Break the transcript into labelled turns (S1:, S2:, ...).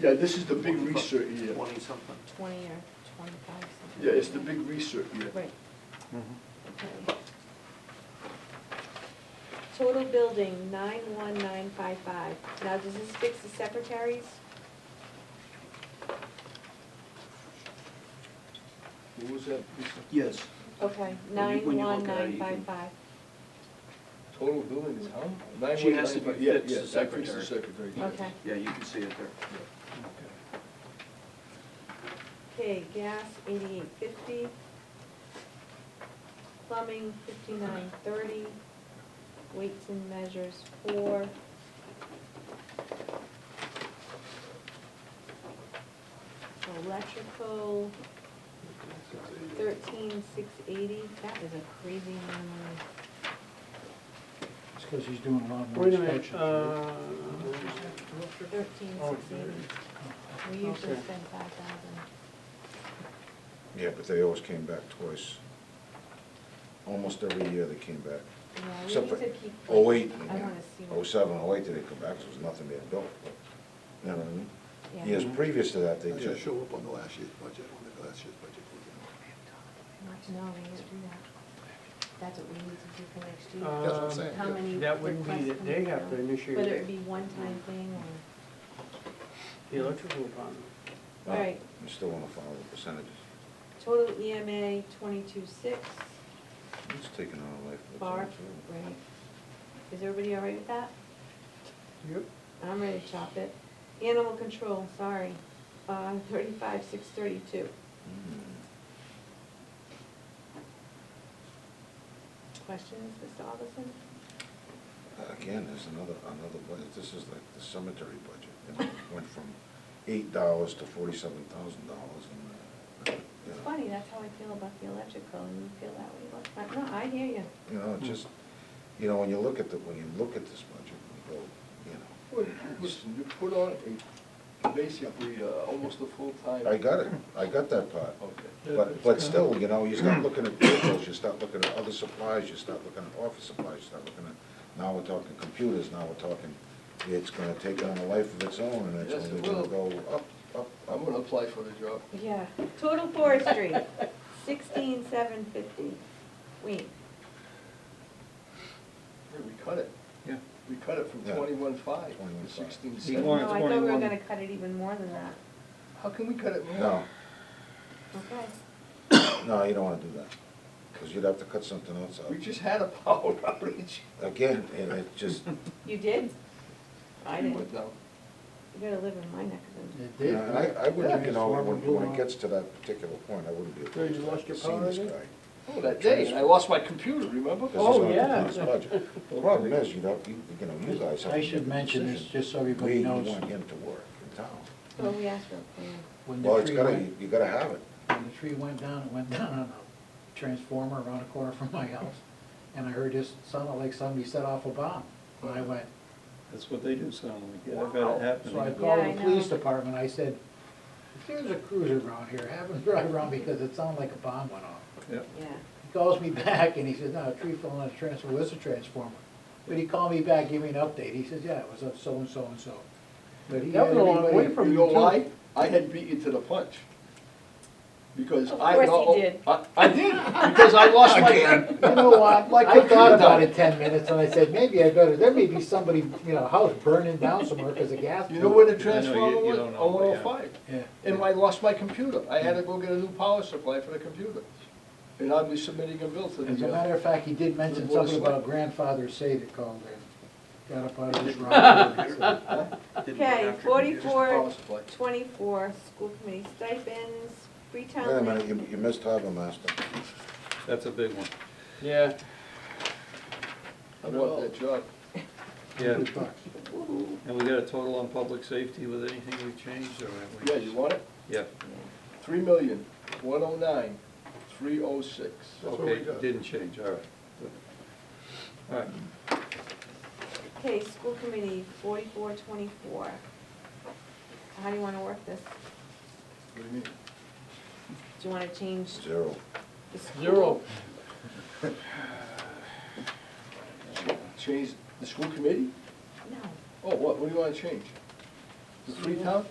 S1: Yeah, this is the big research year.
S2: Twenty-something.
S3: twenty or twenty-five, something.
S1: Yeah, it's the big research year.
S3: Right, okay. Total building, nine-one-nine-five-five. Now, does this fix the secretaries?
S1: What was that? Lisa?
S2: Yes.
S3: Okay,
S2: When you- when you look at it, you can-
S3: nine-one-nine-five-five.
S1: Total billing is how? Nine
S2: She has to
S1: one nine five-
S2: be
S1: yeah,
S2: fixed,
S1: yeah,
S2: the
S1: that fits the secretary, yes.
S3: Okay.
S2: Yeah, you can see it there.
S3: Okay, gas, eighty-eight fifty. Plumbing, fifty-nine thirty. Weights and measures, four. Electrical, thirteen six eighty, that is a crazy number.
S4: It's because he's doing a lot more
S5: Wait a minute,
S4: inspections.
S5: uh,
S3: Thirteen six eighty, we usually
S5: Okay.
S3: spend five thousand.
S6: Yeah, but they always came back twice. Almost every year they came back.
S3: Yeah, we
S6: Except
S3: need to
S6: for
S3: keep.
S6: oh eight,
S3: I wanna see. what-
S6: oh seven, oh eight, they didn't come back, 'cause there was nothing being built. but, You know what I mean?
S3: yeah.
S6: Years previous to that, they
S7: They just
S6: just,
S7: show up on the last year's budget, on the last year's budget.
S3: No, we need to do that. That's what we need to do for next year.
S7: That's what I'm
S5: um,
S7: saying.
S3: How many
S5: that wouldn't be
S3: requests
S5: that they
S3: come
S5: have to
S3: down?
S5: initiate
S3: Whether it
S5: it,
S3: be one-time thing or,
S5: the electrical department.
S6: no,
S3: Right.
S6: I'm still wanna follow the percentages.
S3: total E EMA twenty-two-six,
S6: It's taken on a life of its
S3: bar,
S6: own, too.
S3: right? Is everybody all right with that?
S5: Yep.
S3: I'm ready to chop it. Animal control, sorry, uh, thirty-five, six thirty-two.
S6: Hmm.
S3: Questions, Mr. Alderson?
S6: Again, there's another, another budget, this is like the cemetery budget, you know, went from eight dollars to forty-seven thousand dollars and, uh, you
S3: It's
S6: know.
S3: funny, that's how I feel about the electrical, and you feel that way about, no, I hear you.
S6: You know, it just, you know, when you look at the, when you look at this budget, you go, you know,
S1: Well, Listen, you put on a, basically, uh, almost a full-time.
S6: I got it, I got that part.
S1: Okay.
S6: But, but still, you know, you start looking at vehicles, you start looking at other supplies, you start looking at office supplies, you start looking at, now we're talking computers, now we're talking, it's gonna take on a life of its own, and it's
S1: Yes, it
S6: only gonna
S1: will.
S6: go up, up,
S1: I'm
S6: up.
S1: gonna apply for the job.
S3: Yeah, total forestry, sixteen seven fifty. Wait,
S1: Hey, We cut it.
S2: Yeah.
S1: We cut it from
S6: Yeah.
S1: twenty-one five to
S6: 21.5.
S1: sixteen
S2: He
S3: no,
S1: seven.
S3: I
S2: wants-
S3: thought we were
S2: 21.
S3: gonna cut it even more than that.
S1: How can we cut it more?
S6: No,
S3: Okay,
S6: no, you don't wanna do that, because you'd have to cut something else
S1: We
S6: out.
S1: just had a power outage.
S6: Again, and it just,
S3: you did? I
S1: We
S3: didn't.
S1: went down.
S3: You gotta live in my neck of the
S4: It
S6: you
S4: did.
S6: know, and I, I wouldn't, you know,
S4: Transformer
S6: when,
S4: blew
S6: when it
S4: out.
S6: gets to that particular point, I wouldn't be
S4: So you
S6: opposed to
S4: lost your
S6: that,
S4: power
S6: seeing this
S4: again?
S6: guy.
S1: Oh, that day, and I lost my computer, remember?
S6: This is
S5: Oh,
S6: not the
S5: yeah.
S6: police budget. The problem is, you know, you, you know, you guys have.
S4: I
S6: to
S4: should
S6: make a
S4: mention this,
S6: decision.
S4: just so everybody knows.
S6: We want him to work in town.
S3: So we asked for a plan.
S4: When the
S6: Well, it's
S4: tree
S6: gotta,
S4: went-
S6: you gotta have it.
S4: When the tree went down, it went down on a transformer around a corner from my house, and I heard this, sounded like somebody set off a bomb. And I went, "Oh."
S8: That's what they do sound like, yeah, I've
S1: Wow.
S8: had it
S4: so I
S8: happen.
S4: called
S3: Yeah, I
S4: the police
S3: know.
S4: department, I said, "If there's a cruiser around here, have them drive around because it sounded like a bomb went off.
S8: Yeah,
S3: Yeah,
S4: He calls me back and he says, no, a tree fell on a transformer, it's a transformer. But he called me back, gave me an update, he says, yeah, it was a so-and-so and so. But he
S5: That was
S4: had
S5: a long
S4: everybody-
S5: way
S1: You
S5: from you
S1: know
S5: too.
S1: why? I had beat you to the punch. Because
S3: Of
S1: I.
S3: course
S1: no-
S3: he did.
S1: I, I did, because I lost my. Again.
S4: You know what, like,
S1: I
S4: I thought
S1: could've done
S4: about
S1: it.
S4: it ten minutes and I said, maybe I better, there may be somebody, you know, house burning down somewhere because of gas.
S1: You know where the
S8: I know, you-
S1: transformer
S8: you
S1: was?
S8: don't know,
S1: On one oh
S8: yeah.
S1: five.
S4: Yeah.
S1: And I lost my computer. I had to go get a new power supply for the computer. And I'll be submitting a bill to
S4: As a
S1: the. uh,
S4: matter of fact, he did mention
S1: Board of
S4: something about
S1: Select-
S4: grandfather say that called in, got up out of his rock. and said,
S2: Didn't go
S3: okay,
S2: after computers.
S1: power
S3: forty-four,
S1: supply.
S3: twenty-four, school committee stipends, Freetown.
S6: Wait a minute,
S3: Lake-
S6: you, you missed Harbormaster.
S8: That's a big one.
S5: Yeah.
S1: I want that job.
S8: Yeah,
S4: "Good bucks."
S8: and we got a total on public safety with anything we've changed, or have we?
S1: Yeah, you want it?
S8: Yeah,
S1: Three million, one oh nine, three oh six.
S6: That's what we
S8: okay,
S6: got.
S8: didn't change, all right. All right,
S3: Okay, school committee, forty-four, twenty-four. How do you wanna work this?
S1: What do you mean?
S3: Do you wanna change
S6: Zero.
S3: the school?
S5: Zero.
S1: Change the school committee?
S3: No.
S1: Oh, what, what do you wanna change? The Freetown?